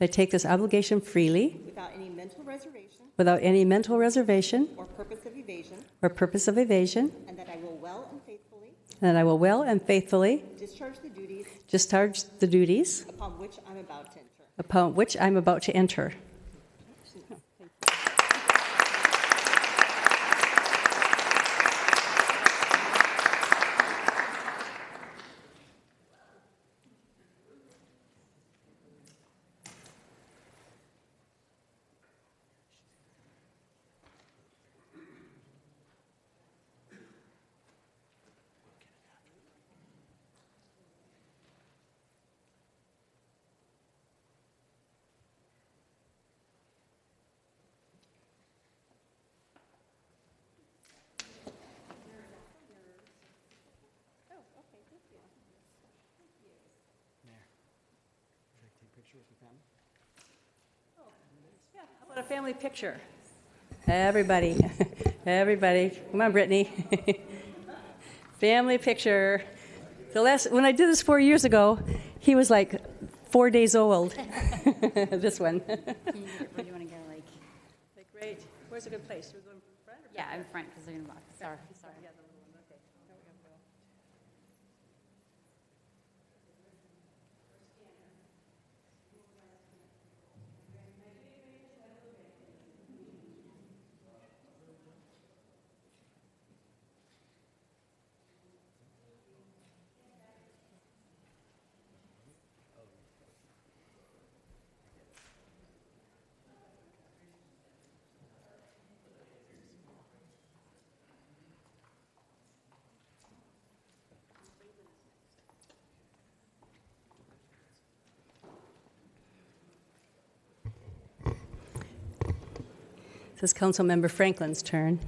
I take this obligation freely without any mental reservation without any mental reservation or purpose of evasion, or purpose of evasion, and that I will well and faithfully and that I will well and faithfully discharge the duties discharge the duties upon which I'm about to enter. upon which I'm about to enter. What a family picture. Everybody, everybody, come on, Brittany. family picture. The last when I did this four years ago, he was like four days old. this one. Where do you want to go, like, Like, great. Where's a good place? We're going from front or yeah, in front, because they're going to block, sorry, sorry. This is Councilmember Franklin's turn.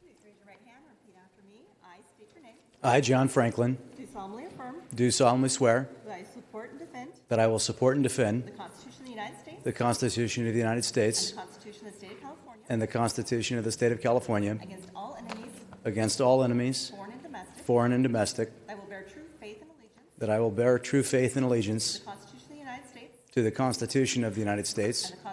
Please raise your right hand and repeat after me. I state your name. I, John Franklin, Do solemnly affirm do solemnly swear that I support and defend that I will support and the defend Constitution of the United States the Constitution of the United and the States Constitution of the State of California and the Constitution of the State of California against all enemies, against all enemies, foreign and domestic. foreign and domestic, I will bear true faith and allegiance that I will bear true faith and to allegiance the Constitution of the United States to the Constitution of the United and States the Constitution of the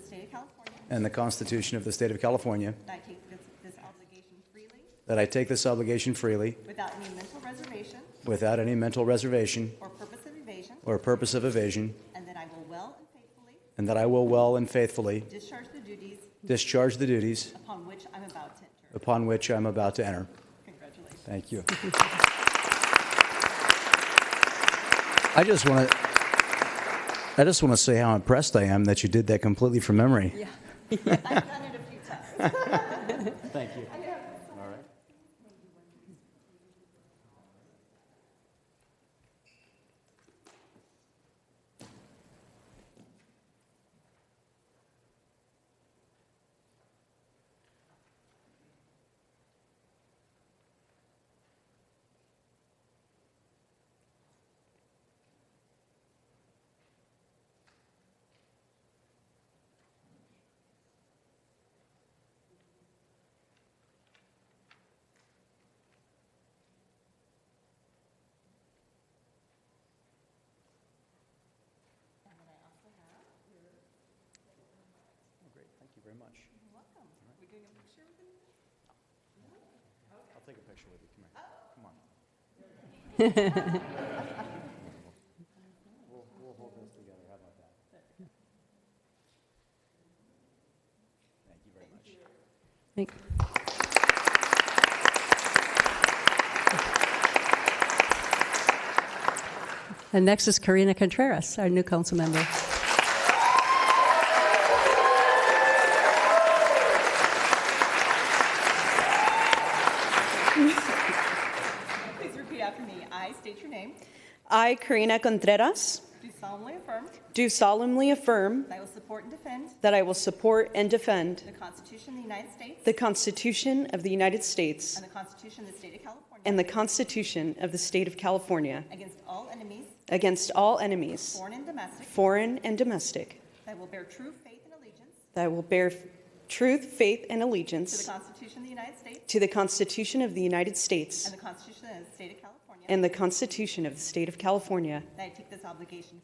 State of California. and the Constitution of the State of California, That I take this this obligation freely that I take this obligation freely without any mental reservation without any mental reservation or purpose of evasion, or purpose of evasion, and that I will well and faithfully and that I will well and faithfully discharge the duties discharge the duties upon which I'm about to enter. upon which I am about to enter. Congratulations. Thank you. I just want to, I just want to say how impressed I am that you did that completely from memory. I've done it a few times. Thank you. Great, thank you very much. You're welcome. We're doing a picture with you? I'll take a picture with you, come here. Come on. We'll, we'll hold this together, how about that? Thank you very much. Thank- And next is Karina Contreras, our new council member. Please repeat after me. I state your name. I, Karina Contreras, Do solemnly affirm do solemnly affirm that I will support and defend that I will support and defend the Constitution of the United States the Constitution of the United States and the Constitution of the State of California and the Constitution of the State of California against all enemies, against all enemies, foreign and domestic. foreign and domestic, That I will bear true faith and allegiance that I will bear truth, faith, and to the allegiance Constitution of the United States to the Constitution of the United States and the Constitution of the State of California. and the Constitution of the State of California, That I take this obligation